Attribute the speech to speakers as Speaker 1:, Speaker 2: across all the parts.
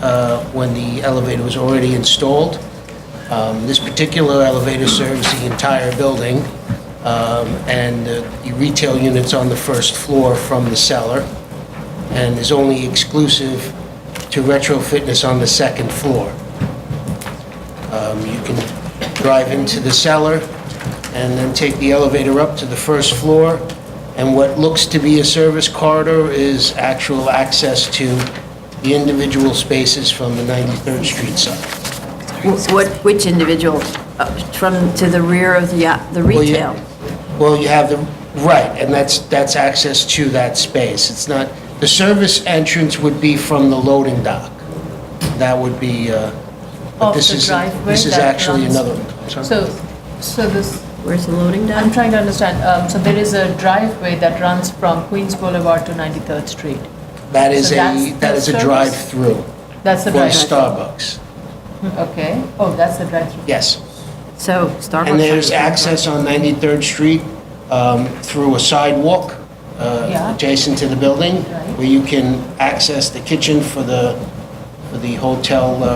Speaker 1: uh, when the elevator was already installed. Um, This particular elevator serves the entire building, um, and uh, the retail units on the first floor from the cellar, and is only exclusive to Retro Fitness on the second floor. Um, You can drive into the cellar and then take the elevator up to the first floor. And what looks to be a service corridor is actual access to the individual spaces from the 93rd Street side.
Speaker 2: Wh- What, which individual, Uh, from, to the rear of the, uh, the
Speaker 1: Well, you-
Speaker 2: retail?
Speaker 1: Well, you have the, right, and that's, that's access to that space. It's not, the service entrance would be from the loading dock. That would be, uh, but
Speaker 3: Off
Speaker 1: this
Speaker 3: the
Speaker 1: is,
Speaker 3: driveway
Speaker 1: this is
Speaker 3: that
Speaker 1: actually
Speaker 3: runs-
Speaker 1: another, I'm sorry.
Speaker 3: So, so this,
Speaker 2: Where's the loading
Speaker 3: I'm
Speaker 2: dock?
Speaker 3: trying to understand, um, so there is a driveway that runs from Queens Boulevard to 93rd Street.
Speaker 1: that is
Speaker 3: so
Speaker 1: a,
Speaker 3: that's
Speaker 1: that
Speaker 3: the
Speaker 1: is a
Speaker 3: service?
Speaker 1: drive-through
Speaker 3: That's the
Speaker 1: for
Speaker 3: driveway?
Speaker 1: Starbucks.
Speaker 3: Okay, oh, that's the drive-through.
Speaker 1: Yes.
Speaker 2: So Starbucks.
Speaker 1: And there's access on 93rd Street um, through a sidewalk uh,
Speaker 3: Yeah.
Speaker 1: adjacent to the building,
Speaker 3: Right.
Speaker 1: where you can access the kitchen for the, for the hotel uh,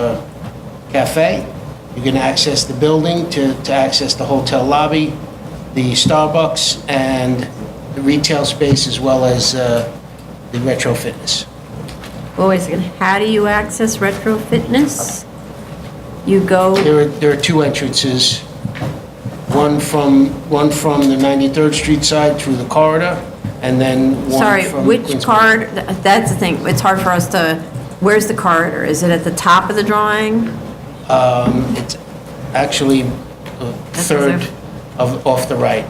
Speaker 1: cafe. You can access the building to, to access the hotel lobby, the Starbucks, and the retail space, as well as uh, the retro fitness.
Speaker 2: Well, wait a second, how do you access Retro Fitness? You go,
Speaker 1: There are, there are two entrances, one from, one from the 93rd Street side through the corridor, and then one from...
Speaker 2: sorry, which
Speaker 1: Queens-
Speaker 2: card, th- that's the thing, it's hard for us to, where's the corridor? Is it at the top of the drawing?
Speaker 1: It's actually uh,
Speaker 2: That's
Speaker 1: third
Speaker 2: reserved.
Speaker 1: of, off the right.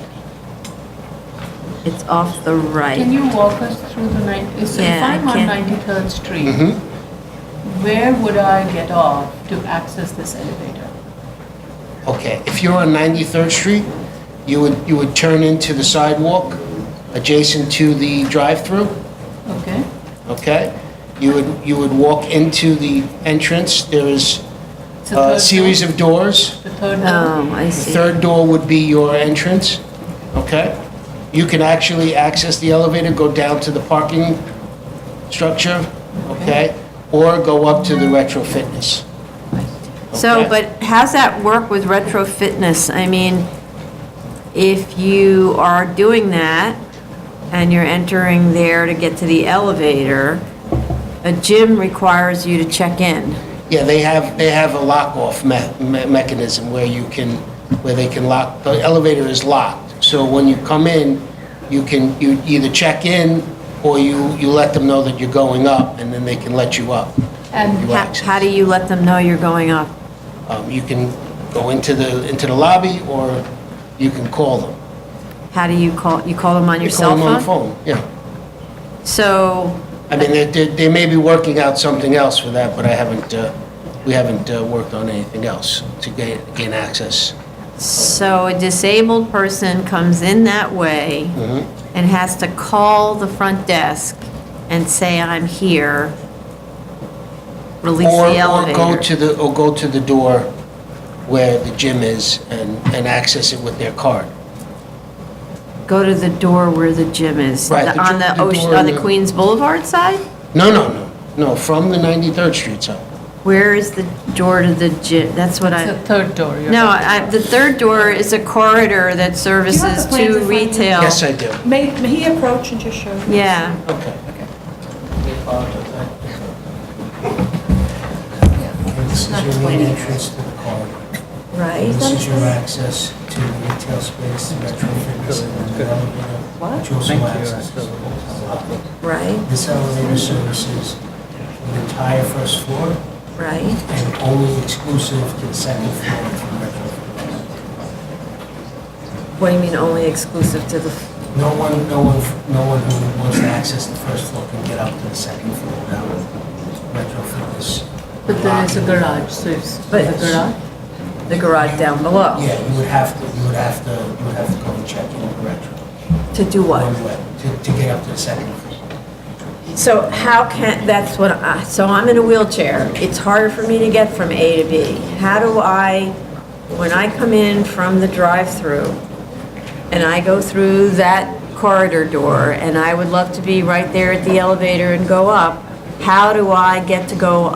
Speaker 2: It's off the
Speaker 3: Can
Speaker 2: right.
Speaker 3: you walk us through the night, if
Speaker 2: Yeah, I
Speaker 3: I'm on
Speaker 2: can.
Speaker 3: 93rd Street, where would I get off to access this elevator?
Speaker 1: Okay, if you're on 93rd Street, you would, you would turn into the sidewalk adjacent to the drive-through,
Speaker 3: Okay,
Speaker 1: okay? You would, you would walk into the entrance, there is
Speaker 3: It's the
Speaker 1: a
Speaker 3: third
Speaker 1: series of doors.
Speaker 3: the third door?
Speaker 2: Oh, I
Speaker 1: The
Speaker 2: see.
Speaker 1: third door would be your entrance, okay? You can actually access the elevator, go down to the parking structure, okay? Or go up to the retro fitness.
Speaker 2: So,
Speaker 1: Okay.
Speaker 2: but how's that work with retro fitness? I mean, if you are doing that and you're entering there to get to the elevator, a gym requires you to check in.
Speaker 1: Yeah, they have, they have a lock-off me- me- mechanism where you can, where they can lock, the elevator is locked. So when you come in, you can, you either check in or you, you let them know that you're going up and then they can let you up.
Speaker 3: And
Speaker 1: You
Speaker 2: How
Speaker 1: access.
Speaker 2: how do you let them know you're going up?
Speaker 1: Um, You can go into the, into the lobby or you can call them.
Speaker 2: How do you call, you call them on your
Speaker 1: You
Speaker 2: cell
Speaker 1: call them on the
Speaker 2: phone?
Speaker 1: phone, yeah.
Speaker 2: So,
Speaker 1: I mean, they, they they may be working out something else with that, but I haven't, uh, we haven't uh, worked on anything else to gain, gain access.
Speaker 2: so a disabled person comes in that way
Speaker 1: Mm-hmm.
Speaker 2: and has to call the front desk and say, I'm here. Release
Speaker 1: Or,
Speaker 2: the
Speaker 1: or
Speaker 2: elevator.
Speaker 1: go to the, or go to the door where the gym is and, and access it with their card.
Speaker 2: Go to the door where the gym is.
Speaker 1: Right,
Speaker 2: The-
Speaker 1: the
Speaker 2: On
Speaker 1: dr-
Speaker 2: the
Speaker 1: the
Speaker 2: ocean,
Speaker 1: door
Speaker 2: on
Speaker 1: in
Speaker 2: the
Speaker 1: the-
Speaker 2: Queens Boulevard side?
Speaker 1: No, no, no, no, from the 93rd Street side.
Speaker 2: Where is the door to the gym? That's what
Speaker 3: It's
Speaker 2: I,
Speaker 3: the third door. you're
Speaker 2: no,
Speaker 3: right.
Speaker 2: I, the third door is a corridor that services
Speaker 4: plans in
Speaker 2: to
Speaker 4: front of you?
Speaker 2: retail.
Speaker 1: Yes, I do.
Speaker 4: May, may he approach and just show? you?
Speaker 2: Yeah,
Speaker 1: Okay.
Speaker 5: This is your main entrance to the corridor.
Speaker 3: Uh,
Speaker 2: right.
Speaker 5: This is your access to retail space, retro fitness, and then the elevator. Which also access to the hotel.
Speaker 2: Right,
Speaker 5: This elevator services the entire first floor
Speaker 2: right.
Speaker 5: and only exclusive to the second floor for retro fitness.
Speaker 2: What do you mean only exclusive to the,
Speaker 5: No one, no one, no one who wants to access the first floor can get up to the second floor without retro fitness.
Speaker 3: But there is a garage, so it's the
Speaker 2: But-
Speaker 3: garage?
Speaker 2: the garage down below?
Speaker 5: Yeah, you would have to, you would have to, you would have to go and check in with retro.
Speaker 2: To do
Speaker 5: One way, to, to get up to the second floor.
Speaker 2: So how can, that's what I, so I'm in a wheelchair. It's harder for me to get from A to B. How do I, when I come in from the drive-through and I go through that corridor door and I would love to be right there at the elevator and go up, how do I get to go